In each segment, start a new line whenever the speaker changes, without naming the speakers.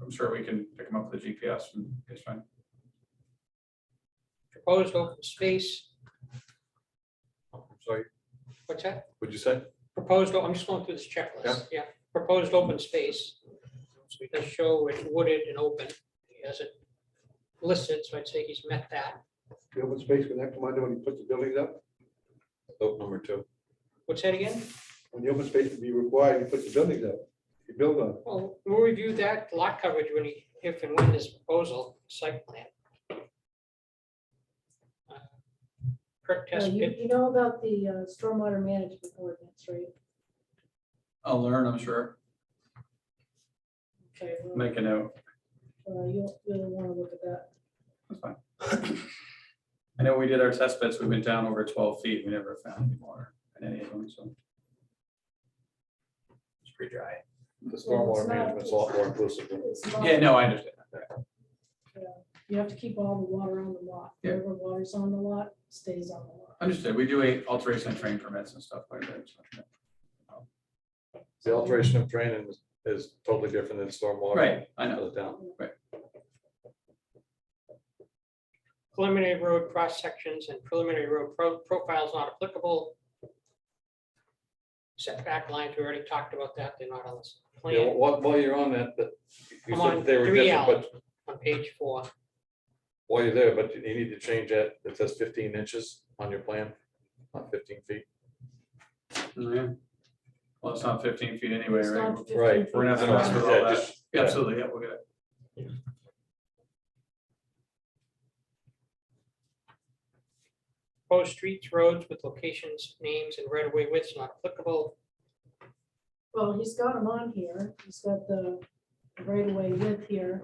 I'm sure we can pick them up with the GPS and it's fine.
proposed open space,
Sorry,
what's that?
what'd you say?
Proposed, o- I'm just going through this checklist, yeah, proposed open space. So he does show it wooded and open, he has it listed, so I'd say he's met that.
The open space would that come under when you put the buildings up?
Vote Oh, number two.
What's that again?
When the open space would be required, you put the buildings up, you build on. it.
Well, we'll review that lot coverage when he, if and when his proposal site plan. Uh, Perk
Yeah,
test
Uh, You
pit,
you know about the uh, stormwater management ordinance, right?
I'll learn, I'm sure.
Okay, well,
Make a note.
uh, You'll, you'll want to look at that.
That's fine. I know we did our test bits. We went down over twelve feet. We never found any water in any of them, so. It's pretty dry.
The
Well,
stormwater
it's not-
management's a lot more inclusive. than-
It's not-
Yeah, no, I understand.
You have to keep all the water on the lot.
Yeah.
Whatever water's on the lot stays on the lot.
Understood. We do a alteration and train permits and stuff like that. so,
The alteration of training is- is totally different than
yeah.
stormwater.
Right, I know.
Out of town.
preliminary road cross sections and preliminary road pro- profiles not applicable. Setback lines, we already talked about that, they're not on this
Yeah,
plan,
while, while you're on that, that you
I'm Oh,
said
on
they were
3L.
different, but
on page four.
while you're there, but you need to change that. It says fifteen inches on your plan, not fifteen feet.
Yeah. Well, it's not fifteen feet anyway,
It's
right?
not 15
Right,
feet.
We're not
I
gonna
know,
mess with all
yeah,
that.
just-
Yeah, Absolutely, yeah, we'll get it.
Post streets, roads with locations, names, and right of way widths not applicable.
Well, he's got them on here. He's got the right of way width here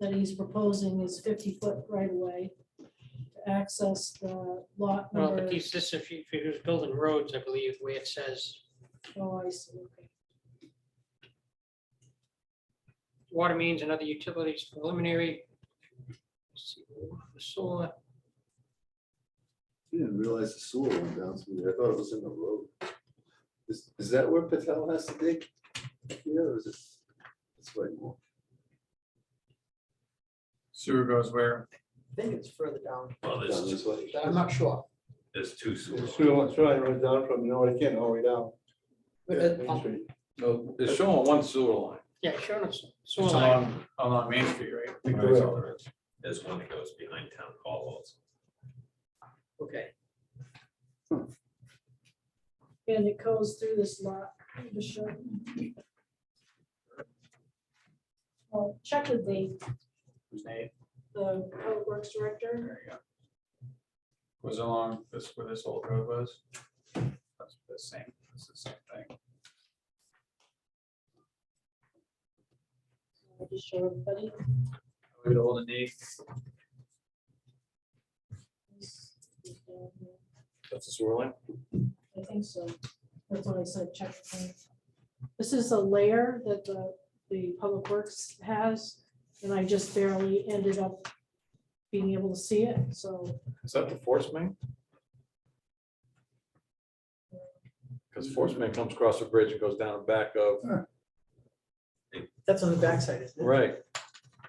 that he's proposing is fifty foot right of way to access the lot
Well,
number.
but these, this is if you- if you're building roads, I believe, where it says
Oh, I see. Okay.
water mains and other utilities preliminary. Let's see, Solar,
I Didn't realize the sewer went down through there. I thought it was in the road. Is, is that where Patel has to dig? Yeah, or is it? It's way more.
Sewer goes where?
I think it's further down.
Well,
Down
there's,
this
two-
way.
I'm not sure.
there's two
The
sewers.
sewer line- sewer line runs down from, you know, what, again, all the way down.
But uh,
Yeah,
it-
Main Street.
No, it's showing one sewer line.
yeah, sure, it's solar
It's
line,
along, along Main Street, right? I think
Correct.
that's all there is.
There's one that goes behind town hall also.
okay.
And it goes through this lot, the short. Well, check with the,
Who's Nate?
the public works director.
There you go. Was along this, where this old road was. That's the same, it's the same thing.
I'll just show everybody.
We'd hold a knee.
That's the sewer line.
I think so. That's what I said, check. with him. This is a layer that the, the public works has, and I just barely ended up being able to see it, so.
Is that the force main? Because force main comes across a bridge and goes down and back of,
That's on the backside, isn't it?
right.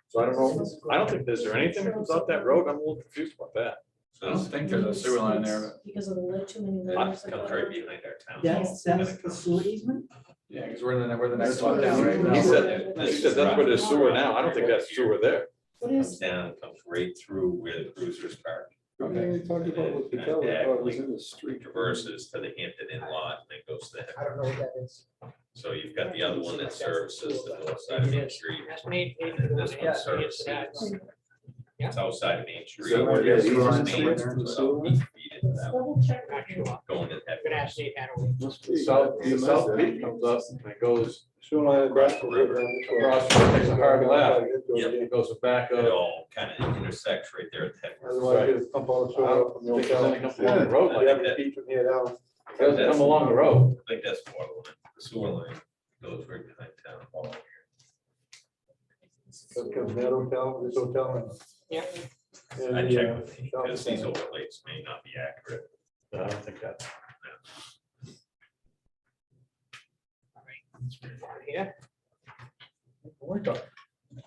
So I don't know, I don't think, is there anything that comes out that road? I'm a little confused about that.
I don't think there's a sewer line there, but,
Because of the, li- too many
That
layers.
comes right behind our town.
That's,
hall.
that's the sewer easement?
yeah, because we're in the, we're the next
That's
lot
what
down
it
right
is.
now.
He
said-
He said that's where there's sewer now. I don't think that's sewer there.
What
Comes
is,
down, comes right through where the cruisers park,
Everything we talked about was Patel, I thought it was in the street.
traverses to the Hampton Inn lot and then goes to the,
I don't know what that is.
so you've got the other one that services the north side of Main Street.
That's Nate, Nate,
And this
yeah,
one
so it's
services,
that.
it's outside of Main Street.
So where
is
It's
the sewer
Main
line?
Street, it's about eight feet into
let's
that one,
double check.
Not sure. I'm
Going to that.
gonna ask Nate how to,
Must be.
South,
Yeah,
the south
that's-
peak comes up and it goes
Sewer line. is
Across the
down,
river.
down this way.
across, takes a hard left.
Yep.
It goes back
It
of,
all kind of intersects right there at that.
Otherwise, you pump all the sewer out from the
Think there's
old
any
town.
up along the road like
You
that.
have to keep from here down.
It doesn't come along the road.
I think that's water line, the sewer line goes right behind town hall.
That comes that hotel, this hotel. and-
yeah,
and
I
the,
check
uh,
with me, because these overlays may not be accurate.
I don't think that.
all right. Let's move on Here,
We're talking